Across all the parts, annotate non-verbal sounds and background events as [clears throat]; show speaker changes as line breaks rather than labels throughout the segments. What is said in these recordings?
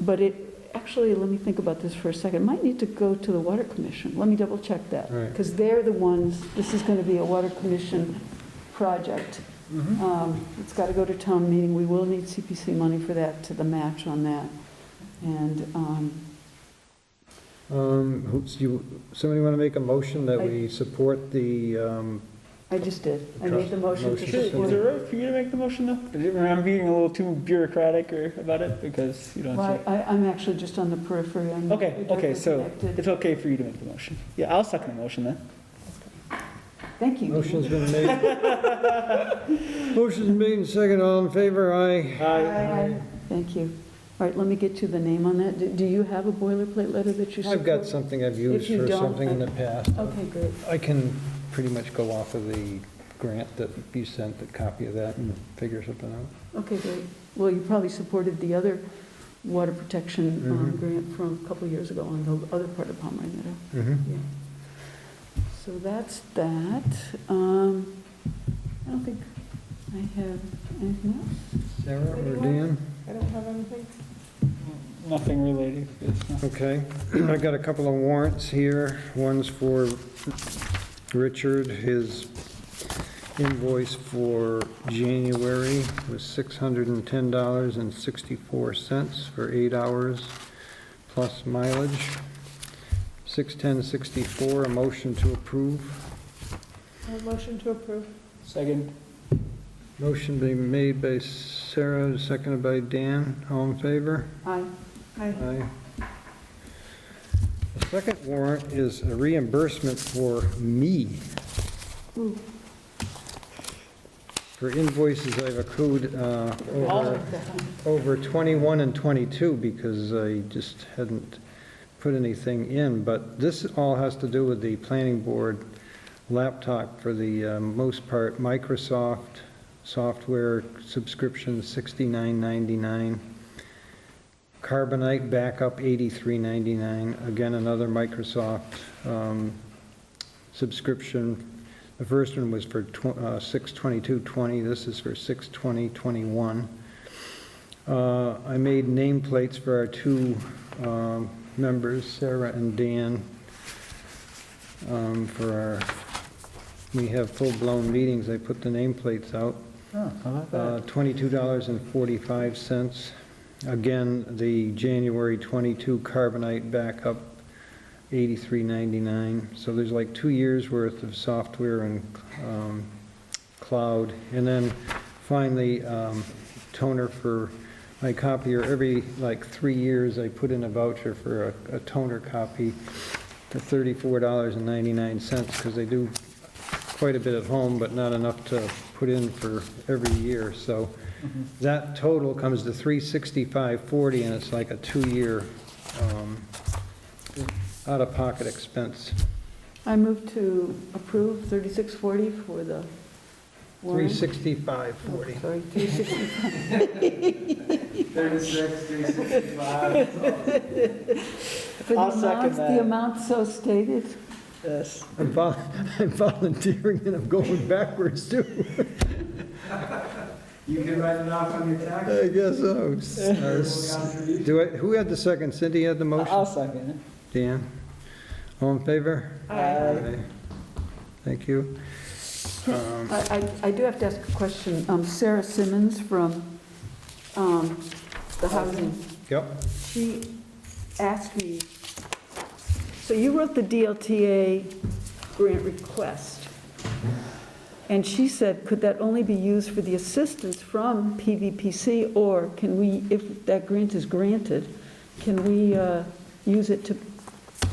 But it, actually, let me think about this for a second, might need to go to the Water Commission. Let me double check that.
Right.
Because they're the ones, this is going to be a Water Commission project.
Mhm.
Um, It's got to go to town meeting, we will need CPC money for that, to the match on that. And um,
Um, Hoops, you, somebody want to make a motion that
I-
we support the, um,
I just did, I made the motion to
Motion.
Is
support.
there a way for you to make the motion though? I'm being a little too bureaucratic or about it because you don't
Well,
have to.
I, I'm actually just on the periphery, I'm.
Okay, okay, so
interconnected.
it's okay for you to make the motion. Yeah, I'll second the motion then.
Thank you.
motion's been made? [laughs] Motion's made and second, all in favor, aye.
Aye. Thank you. All right, let me get you the name on that. Do- Do you have a boilerplate letter that you support?
I've got something I've used
you
for
don't,
something in the past.
Okay, great.
I can pretty much go off of the grant that you sent, the copy of that, and figure something out.
Okay, great. Well, you probably supported the other water protection um,
Mhm.
grant from a couple years ago on the other part of Palmer Meadow.
Mhm.
Yeah. So that's that. Um, I don't think I have anything else.
Sarah or Dan?
I don't have anything.
Nothing related. It's not-
Okay, [clears throat] I got a couple of warrants here. One's for Richard, his invoice for January was $610.64 for eight hours plus mileage. 610.64, a motion to approve.
Uh, Motion to approve.
Second.
Motion being made by Sarah, seconded by Dan. All in favor?
Aye.
Aye.
Aye. The second warrant is a reimbursement for me
Ooh,
for invoices I've accrued uh,
All-
over, over 21 and 22 because I just hadn't put anything in. But this all has to do with the planning board laptop for the uh, most part, Microsoft software subscription 69.99. Carbonite backup, eighty-three ninety-nine. Again, another Microsoft um, subscription. The first one was for tw- uh, six twenty-two twenty. This is for six twenty twenty-one. Uh, I made nameplates for our two um, members, Sarah and Dan, um, for our, we have full-blown meetings. I put the nameplates out.
Oh, how about
Uh,
that?
$22.45. Again, the January 22 carbonite backup, $83.99. So there's like two years' worth of software and um, cloud. And then finally, um, toner for my copier. Every, like, three years, I put in a voucher for a a toner copy for $34.99 because they do quite a bit at home, but not enough to put in for every year. So that total comes to 36540, and it's like a two-year um, out-of-pocket expense.
I move to approve 3640 for the warrant.
[laughs]
36540.
Sorry, 360.
36, 365.
For the
I'll second
amount- The
that.
amount so stated.
Yes.
I'm vol- [laughs] I'm volunteering and I'm going backwards too.
You can write it off on your tax.
I guess so. Uh, Do I, who had the second? Cindy had the
I'll
motion?
second it.
Dan? All in favor?
Aye.
Thank you. Um,
I, I I do have to ask a question. Um, Sarah Simmons from um, the housing,
Yep.
she asked me, so you wrote the DLTA grant request, and she said, could that only be used for the assistance from PVPC, or can we, if that grant is granted, can we uh, use it to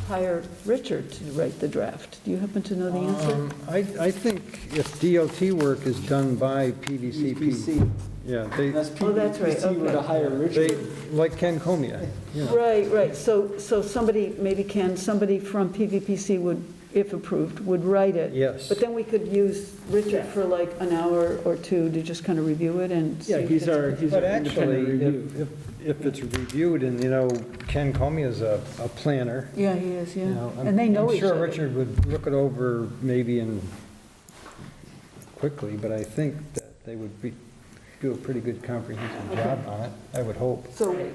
hire Richard to write the draft? Do you happen to know the answer?
Um, I, I think if DOT work is done by PVCP,
PC.
yeah, they,
That's
Oh, that's right,
PVPC were to
okay.
hire
they,
Richard.
like Ken Comia, you know.
Right, right, so, so somebody, maybe Ken, somebody from PVPC would, if approved, would write it.
Yes.
But then we could use Richard for like an hour or two to just kind of review it and see.
Yeah,
if
he's
it's-
our, he's our
But actually,
independent review.
if, if if it's reviewed, and, you know, Ken Comia's a, a planner,
Yeah, he is,
you
yeah,
know. I'm-
and they know each
I'm sure
other.
Richard would look it over maybe in, quickly, but I think that they would be, do a pretty good comprehensive job on it, I would hope.
So